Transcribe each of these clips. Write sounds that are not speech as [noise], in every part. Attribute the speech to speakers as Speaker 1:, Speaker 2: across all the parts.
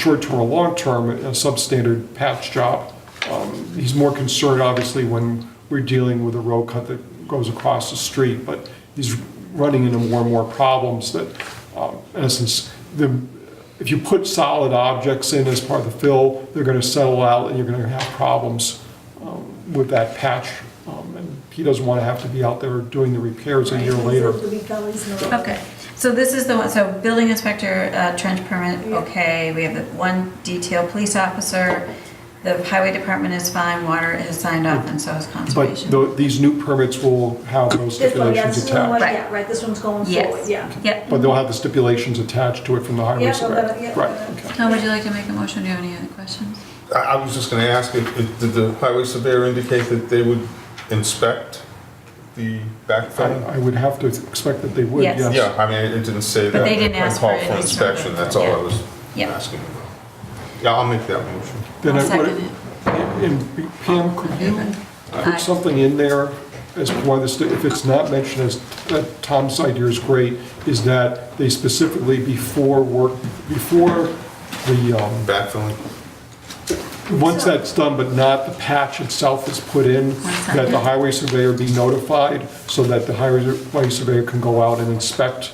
Speaker 1: short-term or long-term, a substandard patch job. Um, He's more concerned, obviously, when we're dealing with a road cut that goes across the street, but he's running into more and more problems that, um, in essence, the, if you put solid objects in as part of the fill, they're gonna settle out and you're gonna have problems um, with that patch. Um, And he doesn't wanna have to be out there doing the repairs a year later.
Speaker 2: To be Kelly's norm.
Speaker 3: Okay, so this is the one, so building inspector, uh, trench permit, okay, we have the one detail police officer, the highway department is fine, water is signed off, and so is
Speaker 1: But
Speaker 3: conservation.
Speaker 1: tho- these new permits will have those
Speaker 2: This one,
Speaker 1: stipulations
Speaker 2: that's
Speaker 1: attached.
Speaker 2: the one,
Speaker 3: Right.
Speaker 2: yeah, right, this one's going forward,
Speaker 3: Yes.
Speaker 2: yeah.
Speaker 3: Yep.
Speaker 1: But they'll have the stipulations attached to it from the highway
Speaker 2: Yeah, well,
Speaker 1: inspector.
Speaker 2: that- yeah.
Speaker 1: Right, okay.
Speaker 3: Tom, would you like to make a motion? Do you have any other questions?
Speaker 4: I I was just going to ask, if- if- did the highway surveyor indicate that they would inspect the backfill?
Speaker 1: I I would have to expect that they would,
Speaker 3: Yes.
Speaker 1: yes.
Speaker 4: Yeah, I mean, it didn't say that.
Speaker 3: But they didn't
Speaker 4: I
Speaker 3: ask
Speaker 4: called
Speaker 3: for
Speaker 4: for
Speaker 3: any sort of-
Speaker 4: inspection, that's all I
Speaker 3: yeah.
Speaker 4: was
Speaker 3: Yeah.
Speaker 4: asking about. Yeah, I'll make that motion.
Speaker 1: Then
Speaker 3: I'll
Speaker 1: I would-
Speaker 3: second it.
Speaker 1: And B- Pam, could you
Speaker 3: Aye.
Speaker 1: put something in there as to why this, if it's not mentioned as, uh, that Tom's idea is great, is that they specifically before work, before the, um,
Speaker 4: Backfilling?
Speaker 1: Once that's done, but not the patch itself is put in, that the highway surveyor be notified so that the highway surveyor can go out and inspect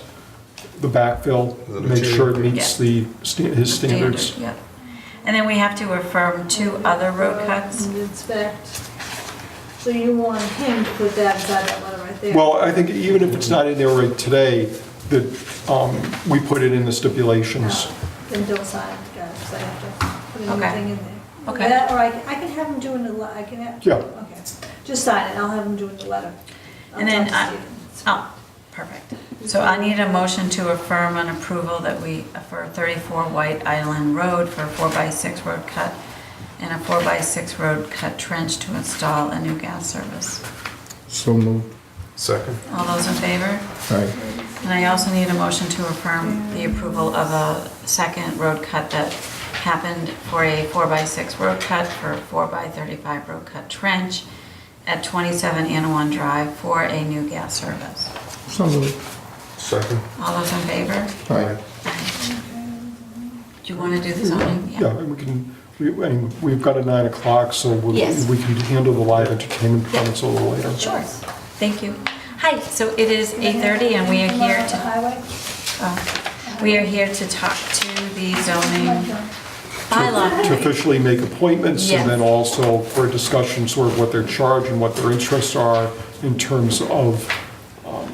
Speaker 1: the backfill,
Speaker 4: The
Speaker 1: make sure it meets
Speaker 3: material.
Speaker 1: the, sta- his standards.
Speaker 3: Yep. And then we have to affirm two other road cuts.
Speaker 2: Uh, And Inspect. So you want him to put that inside that letter right there?
Speaker 1: Well, I think even if it's not in there right today, that um, we put it in the stipulations.
Speaker 2: No, Then don't sign it, guys, I have to put
Speaker 3: Okay.
Speaker 2: anything in there.
Speaker 3: Okay.
Speaker 2: That, or I, I can have him doing the, le- I can have.
Speaker 1: Yeah.
Speaker 2: Okay, just sign it, I'll have him doing the letter. I'll
Speaker 3: And then
Speaker 2: talk
Speaker 3: I,
Speaker 2: to Stephen.
Speaker 3: oh, perfect. So I need a motion to affirm an approval that we, for 34 White Island Road for a 4x6 road cut and a 4x6 road cut trench to install a new gas service.
Speaker 5: So moved.
Speaker 4: Second?
Speaker 3: All those in favor?
Speaker 5: Aye.
Speaker 3: And I also need a motion to affirm the approval of a second road cut that happened for a four-by-six road cut for a four-by-thirty-five road cut trench at twenty-seven Anawan Drive for a new gas service.
Speaker 5: So moved.
Speaker 4: Second?
Speaker 3: All those in favor?
Speaker 5: Aye.
Speaker 3: Do you want to do the zoning?
Speaker 1: Yeah, and we can, we- and we've got a nine o'clock, so we
Speaker 3: Yes.
Speaker 1: we can handle the live entertainment permits a little later.
Speaker 3: Sure. Thank you. Hi, so it is eight-thirty and we are
Speaker 2: Come on
Speaker 3: here
Speaker 2: up the
Speaker 3: to,
Speaker 2: highway.
Speaker 3: oh, we are here to talk to the zoning bylaw.
Speaker 1: to officially make appointments, and then
Speaker 3: Yes.
Speaker 1: also for a discussion sort of what their charge and what their interests are in terms of um,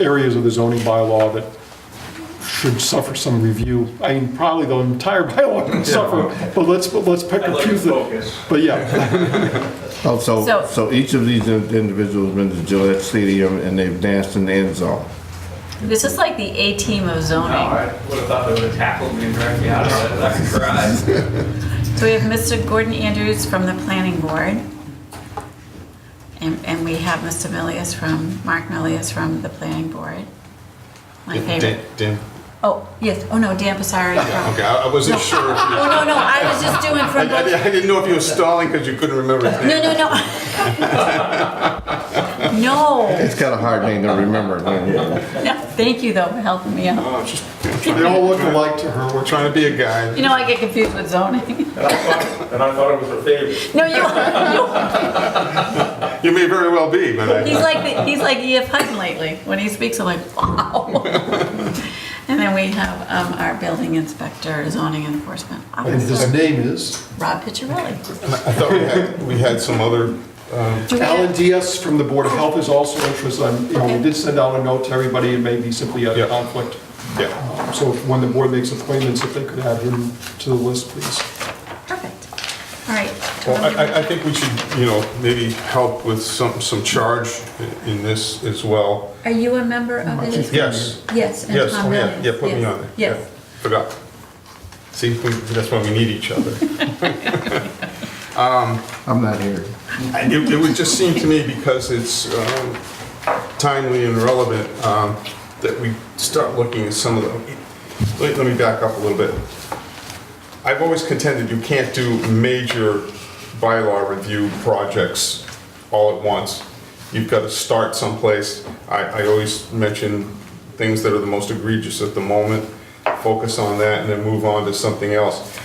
Speaker 1: areas of the zoning bylaw that should suffer some review. I mean, probably the entire [laughs] bylaw can suffer, but let's, but let's pick and choose. Focus. But yeah, [laughs]
Speaker 5: Oh, so,
Speaker 3: So-
Speaker 5: so each of these in- individuals been to Gillette Stadium and they've danced in the end zone.
Speaker 3: This is like the A-team of zoning.
Speaker 6: All right. Would have thought they would have tackled me and dragged me out of that garage.
Speaker 3: So we have Mr. Gordon Andrews from the planning board. And, and we have Mr. Milius from, Mark Milius from the planning board. My
Speaker 4: Dan-
Speaker 3: favorite.
Speaker 4: Dan-
Speaker 3: Oh, yes, oh no, Dan Passari
Speaker 4: yeah,
Speaker 3: from,
Speaker 4: Okay, I I wasn't sure. if you-
Speaker 3: oh no, no, I was just doing
Speaker 4: I
Speaker 3: from
Speaker 4: I
Speaker 3: both.
Speaker 4: didn't I didn't know if you were stalling because you couldn't remember his
Speaker 3: No,
Speaker 4: name.
Speaker 3: no, no. No,
Speaker 5: It's kind of hard name to remember.
Speaker 3: no, thank you though for helping me out.
Speaker 1: they all look alike to her,
Speaker 4: I'm
Speaker 1: which
Speaker 4: Trying to be a guy.
Speaker 3: You know, I get confused with zoning.
Speaker 6: And I thought, and I thought it was her favorite.
Speaker 3: No, you,
Speaker 4: You may very well be, but
Speaker 3: he's
Speaker 4: I,
Speaker 3: like, the- he's like E.F. Hutton lately. When he speaks, I'm like, wow. And then we have um, our building inspector, zoning enforcement
Speaker 1: and
Speaker 3: officer,
Speaker 1: his name is
Speaker 3: Rob Picciarelli.
Speaker 4: I thought we had, we had some other
Speaker 3: Do we
Speaker 1: Alan
Speaker 3: have-
Speaker 1: Diaz from the Board of Health is also interested. I'm- You know, we
Speaker 3: Okay.
Speaker 1: did send out a note to everybody, it may be simply a
Speaker 4: Yeah.
Speaker 1: conflict.
Speaker 4: Yeah.
Speaker 1: So when the board makes appointments, if they could add him to the list, please.
Speaker 3: Perfect. All right.
Speaker 4: Well, I- I, I
Speaker 3: Tom,
Speaker 4: think we should, you know, maybe help with some, some charge i- in this as well.
Speaker 3: Are you a member of the?
Speaker 4: Yes,
Speaker 3: Yes. and
Speaker 4: yes,
Speaker 3: Tom
Speaker 4: oh yeah,
Speaker 3: Williams.
Speaker 4: yeah, put me
Speaker 3: Yes.
Speaker 4: on there. Yeah,
Speaker 3: Yes.
Speaker 4: Forgot. See, we- that's why we need each other.
Speaker 5: I'm not here.
Speaker 4: I- It, it would just seem to me, because it's um, timely and relevant, um, that we start looking at some of the, let, let me back up a little bit. I've always contended you can't do major bylaw review projects all at once. You've got to start someplace. I, I always mention things that are the most egregious at the moment, focus on that and then move on to something else.